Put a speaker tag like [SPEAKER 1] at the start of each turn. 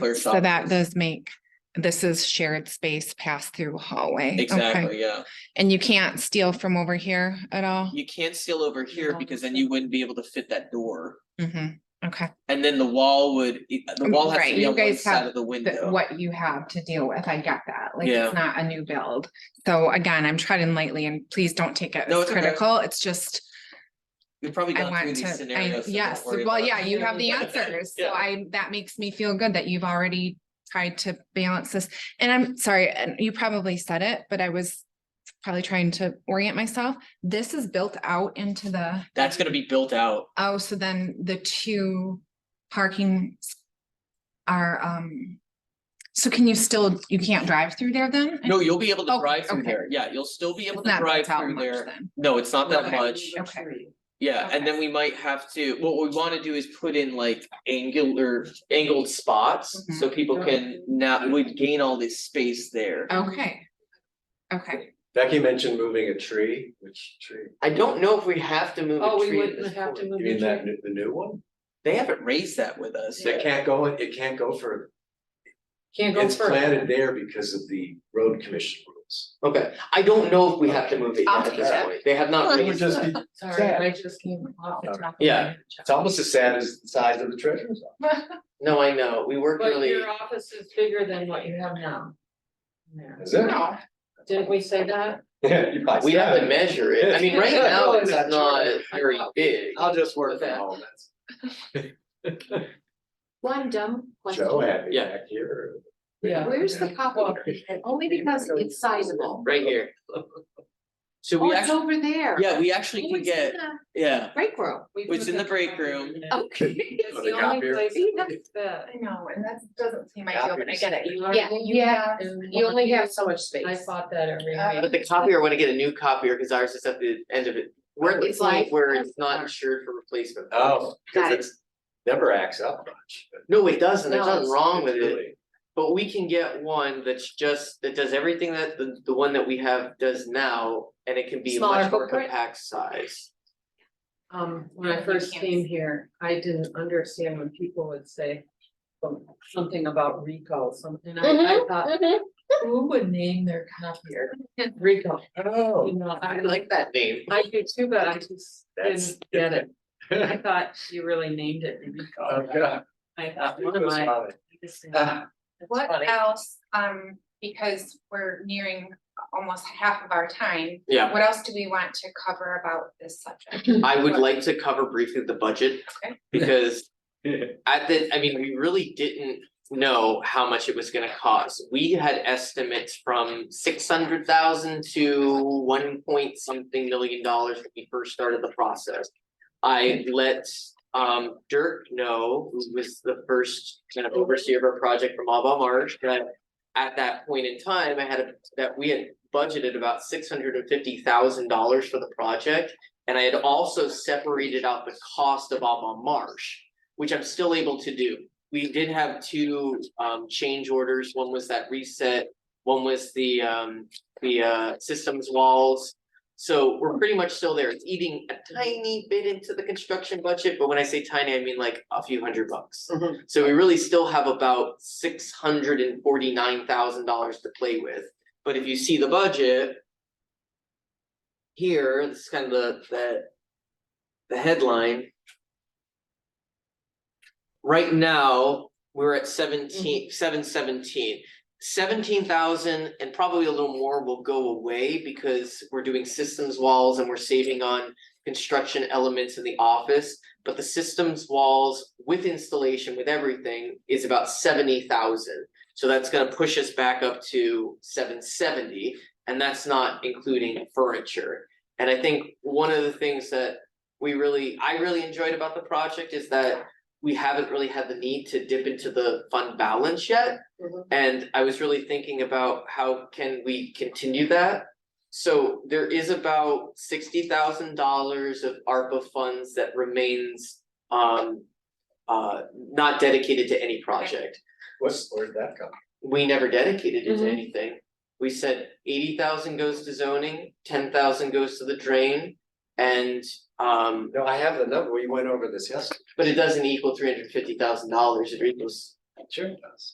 [SPEAKER 1] Clear
[SPEAKER 2] So
[SPEAKER 1] shot.
[SPEAKER 2] that does make, this is shared space pass through hallway. Okay.
[SPEAKER 1] Exactly, yeah.
[SPEAKER 2] And you can't steal from over here at all?
[SPEAKER 1] You can't steal over here
[SPEAKER 2] No.
[SPEAKER 1] because then you wouldn't be able to fit that door.
[SPEAKER 2] hmm okay.
[SPEAKER 1] And then the wall would, e, the
[SPEAKER 2] Um,
[SPEAKER 1] wall has
[SPEAKER 2] right,
[SPEAKER 1] to be
[SPEAKER 2] you
[SPEAKER 1] on one
[SPEAKER 2] guys
[SPEAKER 1] side
[SPEAKER 2] have
[SPEAKER 1] of the
[SPEAKER 2] That
[SPEAKER 1] window.
[SPEAKER 2] what you have to deal with, I get that, like,
[SPEAKER 1] Yeah.
[SPEAKER 2] it's not a new build. So again, I'm treading lightly and please don't take it
[SPEAKER 1] No,
[SPEAKER 2] as
[SPEAKER 1] it's okay.
[SPEAKER 2] critical, it's just,
[SPEAKER 1] We've probably
[SPEAKER 2] I
[SPEAKER 1] gone through
[SPEAKER 2] want
[SPEAKER 1] these
[SPEAKER 2] to, I,
[SPEAKER 1] scenarios. so don't
[SPEAKER 2] yes,
[SPEAKER 1] worry
[SPEAKER 2] well,
[SPEAKER 1] about
[SPEAKER 2] yeah,
[SPEAKER 1] it.
[SPEAKER 2] you have the answers, so
[SPEAKER 1] Yeah.
[SPEAKER 2] I, that makes me feel good that you've already tried to balance this. And I'm sorry, and you probably said it, but I was probably trying to orient myself, this is built out into the.
[SPEAKER 1] That's gonna be built out.
[SPEAKER 2] Oh, so then the two parking s- are, um, so can you still, you can't drive through there then?
[SPEAKER 1] No, you'll be able to
[SPEAKER 2] Oh,
[SPEAKER 1] drive through
[SPEAKER 2] okay.
[SPEAKER 1] there. Yeah, you'll still be able
[SPEAKER 2] It's
[SPEAKER 1] to
[SPEAKER 2] not
[SPEAKER 1] drive
[SPEAKER 2] built out
[SPEAKER 1] through
[SPEAKER 2] much
[SPEAKER 1] there.
[SPEAKER 2] then.
[SPEAKER 1] No, it's not that
[SPEAKER 2] Okay.
[SPEAKER 1] much.
[SPEAKER 2] Okay.
[SPEAKER 1] Yeah, and then we might have to, what we wanna do is put in like angular, angled spots,
[SPEAKER 2] Mm-hmm.
[SPEAKER 1] so people can now, would gain all this space there.
[SPEAKER 2] Okay. Okay,
[SPEAKER 3] Becky mentioned moving a tree, which tree?
[SPEAKER 4] I don't know if we have to move
[SPEAKER 5] Oh,
[SPEAKER 4] a
[SPEAKER 5] we
[SPEAKER 4] tree at
[SPEAKER 5] wouldn't
[SPEAKER 4] this
[SPEAKER 5] have to
[SPEAKER 4] point.
[SPEAKER 5] move.
[SPEAKER 3] You
[SPEAKER 5] the
[SPEAKER 3] mean that,
[SPEAKER 5] tree.
[SPEAKER 3] new- the new one?
[SPEAKER 1] They haven't raised that with us.
[SPEAKER 3] That can't go, it can't go for,
[SPEAKER 5] Can't go
[SPEAKER 3] it's planted
[SPEAKER 5] further.
[SPEAKER 3] there because of the road commission rules.
[SPEAKER 4] Okay, I don't know if we have to move it
[SPEAKER 2] I'll
[SPEAKER 4] yet at
[SPEAKER 2] take
[SPEAKER 4] this
[SPEAKER 2] that.
[SPEAKER 4] point. They have not
[SPEAKER 3] It would
[SPEAKER 4] raised,
[SPEAKER 3] just be,
[SPEAKER 5] Sorry,
[SPEAKER 3] Sad.
[SPEAKER 5] I just came off the top. of my
[SPEAKER 4] Yeah.
[SPEAKER 3] it's almost as sad as the size of the treasurer's office.
[SPEAKER 4] no, I know, we worked
[SPEAKER 5] But
[SPEAKER 4] really,
[SPEAKER 5] your office is bigger than what you have now. Yeah.
[SPEAKER 3] Is it?
[SPEAKER 2] no,
[SPEAKER 5] Didn't we say that?
[SPEAKER 3] Yeah, you probably
[SPEAKER 4] we have
[SPEAKER 3] said
[SPEAKER 4] to
[SPEAKER 3] it.
[SPEAKER 4] measure it. I mean, right
[SPEAKER 5] Yeah.
[SPEAKER 4] now, it's
[SPEAKER 3] That's
[SPEAKER 4] not
[SPEAKER 3] true.
[SPEAKER 4] very big.
[SPEAKER 3] I'll just work
[SPEAKER 4] Okay.
[SPEAKER 3] from home, that's
[SPEAKER 6] One dumb
[SPEAKER 3] Joe
[SPEAKER 6] question.
[SPEAKER 3] had me
[SPEAKER 4] Yeah.
[SPEAKER 3] back here.
[SPEAKER 5] Yeah.
[SPEAKER 6] Where's the copy? And Only because it's sizable.
[SPEAKER 4] Right here.
[SPEAKER 1] So
[SPEAKER 6] Oh,
[SPEAKER 1] we
[SPEAKER 6] it's
[SPEAKER 1] actually,
[SPEAKER 6] over there.
[SPEAKER 1] yeah, we
[SPEAKER 6] Oh,
[SPEAKER 1] actually can
[SPEAKER 6] it's in
[SPEAKER 1] get,
[SPEAKER 6] the
[SPEAKER 1] yeah,
[SPEAKER 6] Break room.
[SPEAKER 1] It's in the break room.
[SPEAKER 6] Okay.
[SPEAKER 5] It's
[SPEAKER 3] Put
[SPEAKER 5] the
[SPEAKER 3] a
[SPEAKER 5] only
[SPEAKER 3] copier.
[SPEAKER 5] place
[SPEAKER 6] See,
[SPEAKER 5] that fits that.
[SPEAKER 2] I know, and that doesn't seem ideal, but I get it. You
[SPEAKER 6] Yeah,
[SPEAKER 2] already-
[SPEAKER 6] you have, you only have so much
[SPEAKER 5] I
[SPEAKER 6] space.
[SPEAKER 5] fought that every
[SPEAKER 2] Uh,
[SPEAKER 5] night.
[SPEAKER 4] But the copier, I wanna get a new copier, cause ours is at the end of it. We're at the
[SPEAKER 6] It's
[SPEAKER 4] point
[SPEAKER 6] life.
[SPEAKER 4] where it's not insured for replacement.
[SPEAKER 3] Oh,
[SPEAKER 6] Got
[SPEAKER 3] cause
[SPEAKER 6] it.
[SPEAKER 3] it's never acts up much.
[SPEAKER 4] No, it doesn't, there's
[SPEAKER 6] No,
[SPEAKER 4] nothing
[SPEAKER 6] it's-
[SPEAKER 4] wrong with
[SPEAKER 3] It's
[SPEAKER 4] it,
[SPEAKER 3] really-
[SPEAKER 4] but we can get one that's just, that does everything that the, the one that we have does now. And it can be a
[SPEAKER 6] Smaller
[SPEAKER 4] much more
[SPEAKER 6] footprint?
[SPEAKER 4] compact size.
[SPEAKER 5] Um, when I
[SPEAKER 2] You
[SPEAKER 5] first
[SPEAKER 2] can't
[SPEAKER 5] came
[SPEAKER 2] see.
[SPEAKER 5] here, I didn't understand when people would say um, something about recall, something, I, I
[SPEAKER 6] Mhm,
[SPEAKER 5] thought,
[SPEAKER 6] mhm.
[SPEAKER 5] who would name their copier? Recall, you
[SPEAKER 3] Oh.
[SPEAKER 5] know, I
[SPEAKER 4] I
[SPEAKER 5] like,
[SPEAKER 4] like that name.
[SPEAKER 5] I do too, but I just
[SPEAKER 3] That's-
[SPEAKER 5] didn't get it. I thought you really named it
[SPEAKER 3] Oh,
[SPEAKER 5] recall.
[SPEAKER 3] God.
[SPEAKER 5] I thought, what am
[SPEAKER 3] That's
[SPEAKER 5] I?
[SPEAKER 3] funny.
[SPEAKER 5] It's
[SPEAKER 3] Ah.
[SPEAKER 2] What
[SPEAKER 5] funny.
[SPEAKER 2] else, um, because we're nearing almost half of our time,
[SPEAKER 4] Yeah,
[SPEAKER 2] what else do we want to cover about this subject?
[SPEAKER 4] I would like to cover briefly the budget.
[SPEAKER 2] Okay.
[SPEAKER 4] Because at the, I mean, we really didn't know how much it was gonna cost. We had estimates from six hundred thousand to one point something million dollars when we first started the process. I let um Dirk know, who was the first kind of overseer of our project from Alba Marsh, that at that point in time, I had a, that we had budgeted about six hundred and fifty thousand dollars for the project. And I had also separated out the cost of Alba Marsh, which I'm still able to do. We did have two um change orders. One was that reset, one was the um the uh systems walls. So we're pretty much still there. It's eating a tiny bit into the construction budget, but when I say tiny, I mean like a few hundred bucks.
[SPEAKER 5] Mhm.
[SPEAKER 4] So we really still have about six hundred and forty-nine thousand dollars to play with. But if you see the budget. Here, this is kind of the the the headline. Right now, we're at seventeen, seven seventeen. Seventeen thousand and probably a little more will go away because we're doing systems walls and we're saving on construction elements in the office. But the systems walls with installation, with everything, is about seventy thousand. So that's gonna push us back up to seven seventy, and that's not including furniture. And I think one of the things that we really, I really enjoyed about the project is that we haven't really had the need to dip into the fund balance yet.
[SPEAKER 5] Mhm.
[SPEAKER 4] And I was really thinking about how can we continue that? So there is about sixty thousand dollars of ARPA funds that remains um uh not dedicated to any project
[SPEAKER 3] What's, where'd that come?
[SPEAKER 4] we never dedicated it to
[SPEAKER 5] Mhm.
[SPEAKER 4] anything. We said eighty thousand goes to zoning, ten thousand goes to the drain. And um,
[SPEAKER 3] No, I have the number, we went over this yesterday,
[SPEAKER 4] but it doesn't equal three hundred fifty thousand dollars, it equals
[SPEAKER 3] sure it does.